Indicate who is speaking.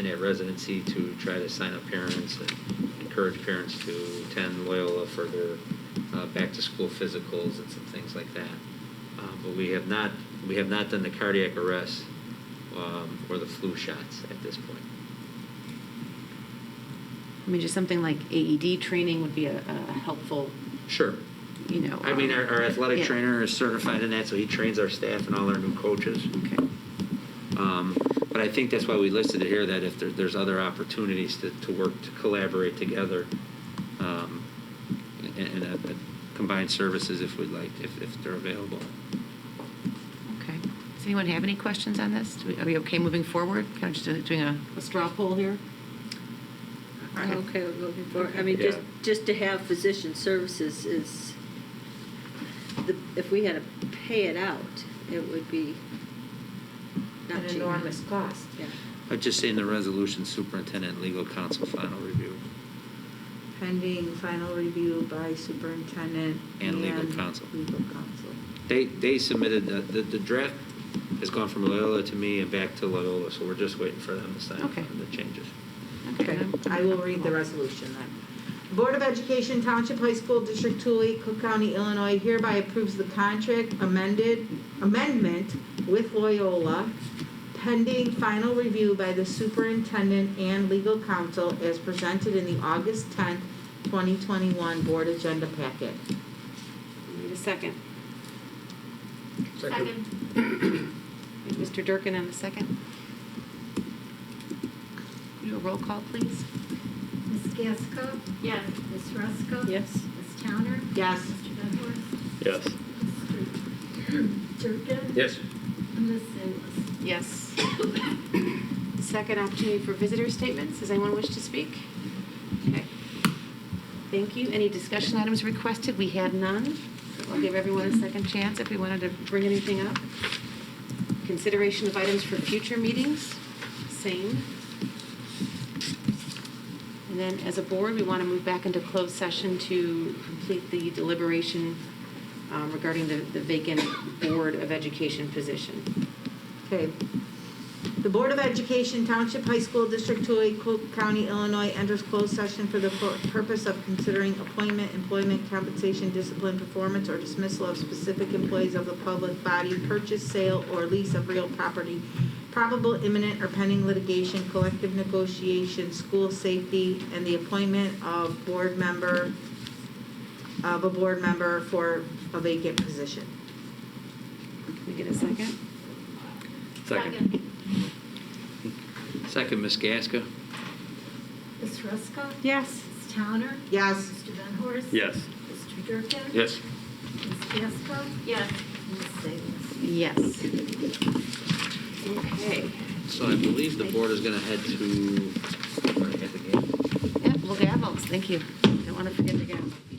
Speaker 1: at residency to try to sign up parents and encourage parents to attend Loyola for their uh, back-to-school physicals and some things like that. Uh, But we have not, we have not done the cardiac arrest um, or the flu shots at this point.
Speaker 2: I mean, just something like
Speaker 3: E
Speaker 2: AED training would be a, a helpful,
Speaker 1: Sure.
Speaker 2: you know.
Speaker 1: I mean, our our athletic
Speaker 2: yeah.
Speaker 1: trainer is certified in that, so he trains our staff and all our new coaches.
Speaker 2: Okay.
Speaker 1: Um, But I think that's why we listed it here, that if there- there's other opportunities to, to work, to collaborate together, um, and, and uh, combine services if we'd like, if, if they're available.
Speaker 3: Okay. Does anyone have any questions on this? Do we- Are we okay moving forward? Kind of just do- doing a,
Speaker 2: A straw poll here?
Speaker 4: I'm
Speaker 3: Okay.
Speaker 4: okay with moving forward. I mean, just,
Speaker 1: Yeah.
Speaker 4: just to have physician services is, the- if we had to pay it out, it would be not
Speaker 5: an
Speaker 4: cheap.
Speaker 5: enormous cost.
Speaker 4: Yeah.
Speaker 1: I'd just say in the resolution, superintendent, legal counsel, final review,
Speaker 5: Pending final review by superintendent.
Speaker 1: And legal counsel.
Speaker 5: Legal counsel.
Speaker 1: They, they submitted, the, the- the draft has gone from Loyola to me and back to Loyola, so we're just waiting for them to sign
Speaker 3: Okay.
Speaker 1: on the changes.
Speaker 3: Okay.
Speaker 5: I will read the resolution then. Board of Education Township High School District Tully, Cook County, Illinois hereby approves the contract amended, amendment with Loyola pending final review by the superintendent and legal counsel as presented in the August 10th, 2021 board agenda packet.
Speaker 2: Need a second.
Speaker 1: Second.
Speaker 2: Mr. Durkin on the second?
Speaker 3: do a roll call, please?
Speaker 6: Ms. Gasko? Yes. Ms. Ruska?
Speaker 4: Yes.
Speaker 6: Ms. Towner?
Speaker 5: Yes.
Speaker 6: Mr. Benhorst?
Speaker 1: Yes.
Speaker 6: Mr. Durkin?
Speaker 1: Yes.
Speaker 6: And Ms. Ennis?
Speaker 2: Yes. Second opportunity for visitor statements. Does anyone wish to speak? Okay. Thank you. Any discussion items requested? We had none. I'll give everyone a second chance if we wanted to bring anything up. Consideration of items for future meetings, same. And then as a board, we want to move back into closed session to complete the deliberation um, regarding the the vacant Board of Education position.
Speaker 5: Okay. The Board of Education Township High School District 208, Cook County, Illinois enters closed session for the pur- purpose of considering appointment, employment, compensation, discipline, performance, or dismissal of specific employees of the public body, purchase, sale, or lease of real property, probable imminent or pending litigation, collective negotiation, school safety, and the appointment of board member, of a board member for a vacant position.
Speaker 2: Can we get a second?
Speaker 1: Second, Ms. Gasko?
Speaker 6: Ms. Ruska?
Speaker 2: Yes.
Speaker 6: Ms. Towner?
Speaker 5: Yes.
Speaker 6: Mr. Benhorst? Mr. Durkin?
Speaker 1: Yes.
Speaker 6: Ms. Gasko? Yes. Ms. Ennis?
Speaker 2: Yes. Okay.
Speaker 1: So I believe the board is going to head to, where I got the game.
Speaker 3: Yep, we'll gavels. Thank you. Don't want to forget to gavel.